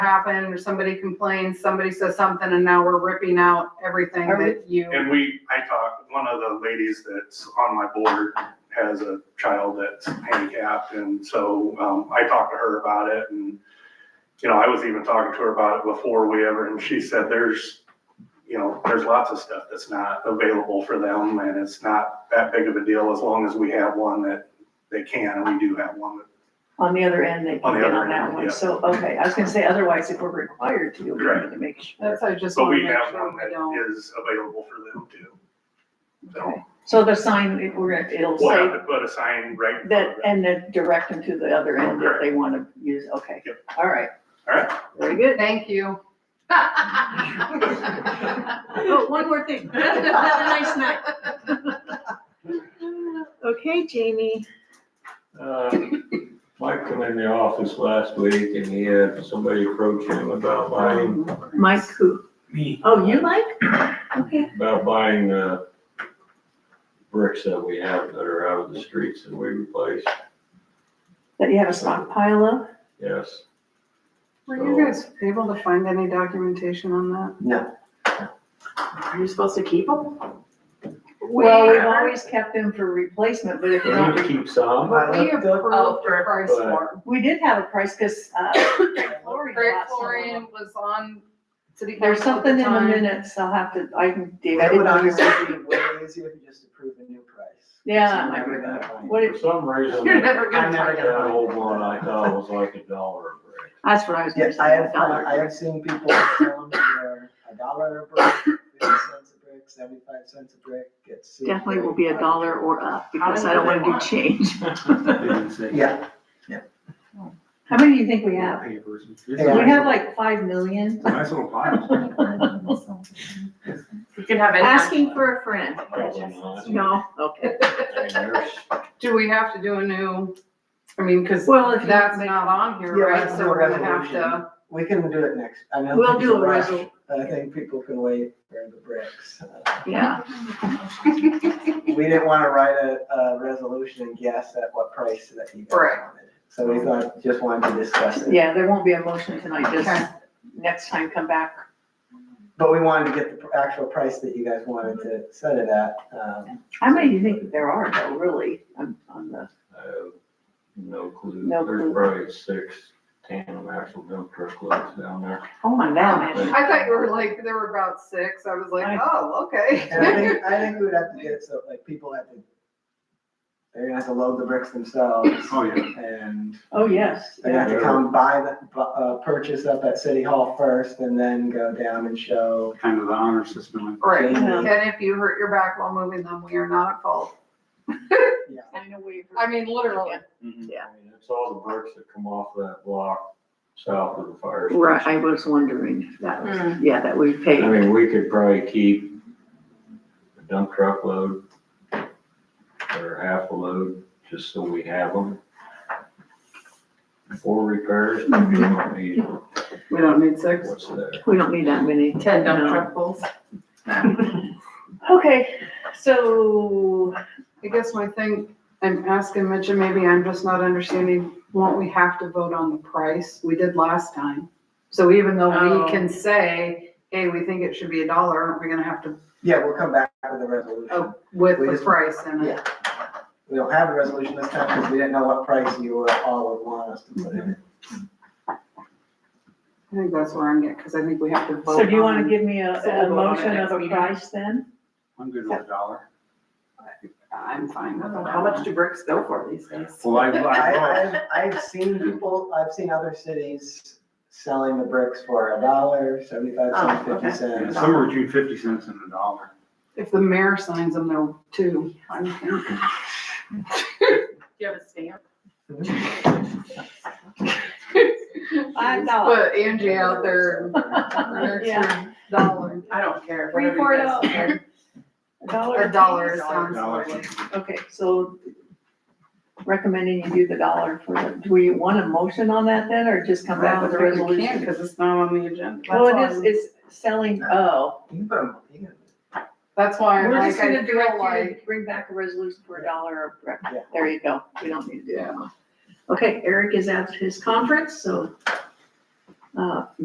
happened, or somebody complains, somebody says something, and now we're ripping out everything Are we- that you. And we, I talked, one of the ladies that's on my board has a child that's handicapped, and so, um, I talked to her about it, and, you know, I was even talking to her about it before we ever, and she said, there's, you know, there's lots of stuff that's not available for them, and it's not that big of a deal as long as we have one that they can, and we do have one that on the other end, they can On the get other on that end, one. yeah. So, okay, I was gonna say, otherwise, if we're required to, we need Correct. to make sure. That's, I just But wanna we make have sure one we don't. that is available for them too. Okay. So So the sign, if we're, gonna- it'll we'll have say to put a sign right in front that, of them. and then direct them to the other end if Correct. they wanna use, okay, Yep. all right. All right. Very good. Thank you. Oh, one more thing. Have a nice night. Okay, Jamie. Uh, Mike come in the office last week and he had somebody approach him about buying, Mike who? Me. Oh, you Mike? Okay. about buying the bricks that we have that are out of the streets that we replace, That you have a stockpile of? yes. Were you guys able to find any documentation on that? Are you supposed to keep them? Well, we've always kept them for replacement, but if not, We keep some, But we looked up- approved the price but- for. we did have a price, cause, uh, chlorine. Craig bought some of them. Florian was on city council. There's at the something in the time. minutes, I'll have to, I can dig. That would honestly be way easier if you just approve a new price. Yeah, I might So you're remember. never gonna What for did, some reason, You're that never I'm gonna never find gonna- old one I thought was like a dollar a brick. that's what I was gonna Yes, say. I have, dollar. found- I have seen people selling for a dollar a brick, fifty cents a brick, seventy-five cents a brick, it's. Definitely will be a dollar or up, because I don't wanna do change. Yeah, How many do you think we have? We have like five million. Nice little pile. You can have Asking for a friend. Probably not. No, okay. And there's- Do we have to do a new, I mean, cause Well, if that's that's, not on here, Yeah, right? let's So do a we're gonna have resolution. to, we can do it next, I know. We'll there's do a rush, resol- but I think people can wait for the bricks. yeah, We didn't wanna write a, a resolution and guess at what price that you guys Right. wanted. So we thought, just wanted to discuss it, yeah, there won't be a motion tonight, Okay. just next time come back. but we wanted to get the actual price that you guys wanted to set it at, um. How many do you think there are though, really, on, on the, I have no clue. No clue. There's probably six tandem axle dump truck loads down there. oh my god. I thought you were like, there were about six. I was like, I- oh, okay. And I think, I think we would have to get it so like people have to, they're gonna have to load the bricks themselves Oh, yeah. and Oh, yes, they're gonna have to come buy the, bu- uh, purchase up at City Hall first and then go down and show. Kind of the honor system. Right. Yeah. And if you hurt your back while moving them, we are not at fault. Yeah. I know we- I mean, literally. I mean, It's all the bricks that come off that block south of the fire. station. Right, I was wondering if that was, yeah, that we I paid. mean, we could probably keep a dump truck load or half a load, just so we have them. For repairs, we don't need We don't need six. what's there. We don't need that many. Ten dump dump truck truck pulls. Okay, so, I guess my thing, I'm asking Mitch, and maybe I'm just not understanding, won't we have to vote on the price? We did last time. So even though Oh. we can say, hey, we think it should be a dollar, aren't we gonna have to, Yeah, we'll come back with a resolution. oh, with We the just- price in it? Yeah. We don't have a resolution this time because we didn't know what price you would all would want us to put in. I think that's where I'm at, because I think we have to vote so do you wanna on- give me a, So we'll a vote on it motion next of a meeting. price then? I'm good with a dollar. I'm fine with that. How much do bricks go for these days? Well, I, I, I, I've, I've seen people, I've seen other cities selling the bricks for a dollar, seventy-five cents, Oh, okay. fifty yeah, cents. somewhere between fifty cents and a dollar. If the mayor signs them, they're two. I'm thinking. Do you have a stamp? Five dollars. Put Angie out there. for an extra Dollar. I don't care. Three, whatever four you guys dollars. care. A dollar. A dollar piece. sounds Dollar. lovely. Okay, so recommending you do the dollar for, the- do we want a motion on that then, or just come back with a resolution? Because it's not on the agenda. Well, That's it why is, I'm- it's selling, oh. You can put 'em- you can- That's why I'm We're like, just I gonna feel direct you like. to bring back a resolution for a dollar a brick. Yeah. There you go. We don't need to do that. Okay, Eric is at his conference, so uh,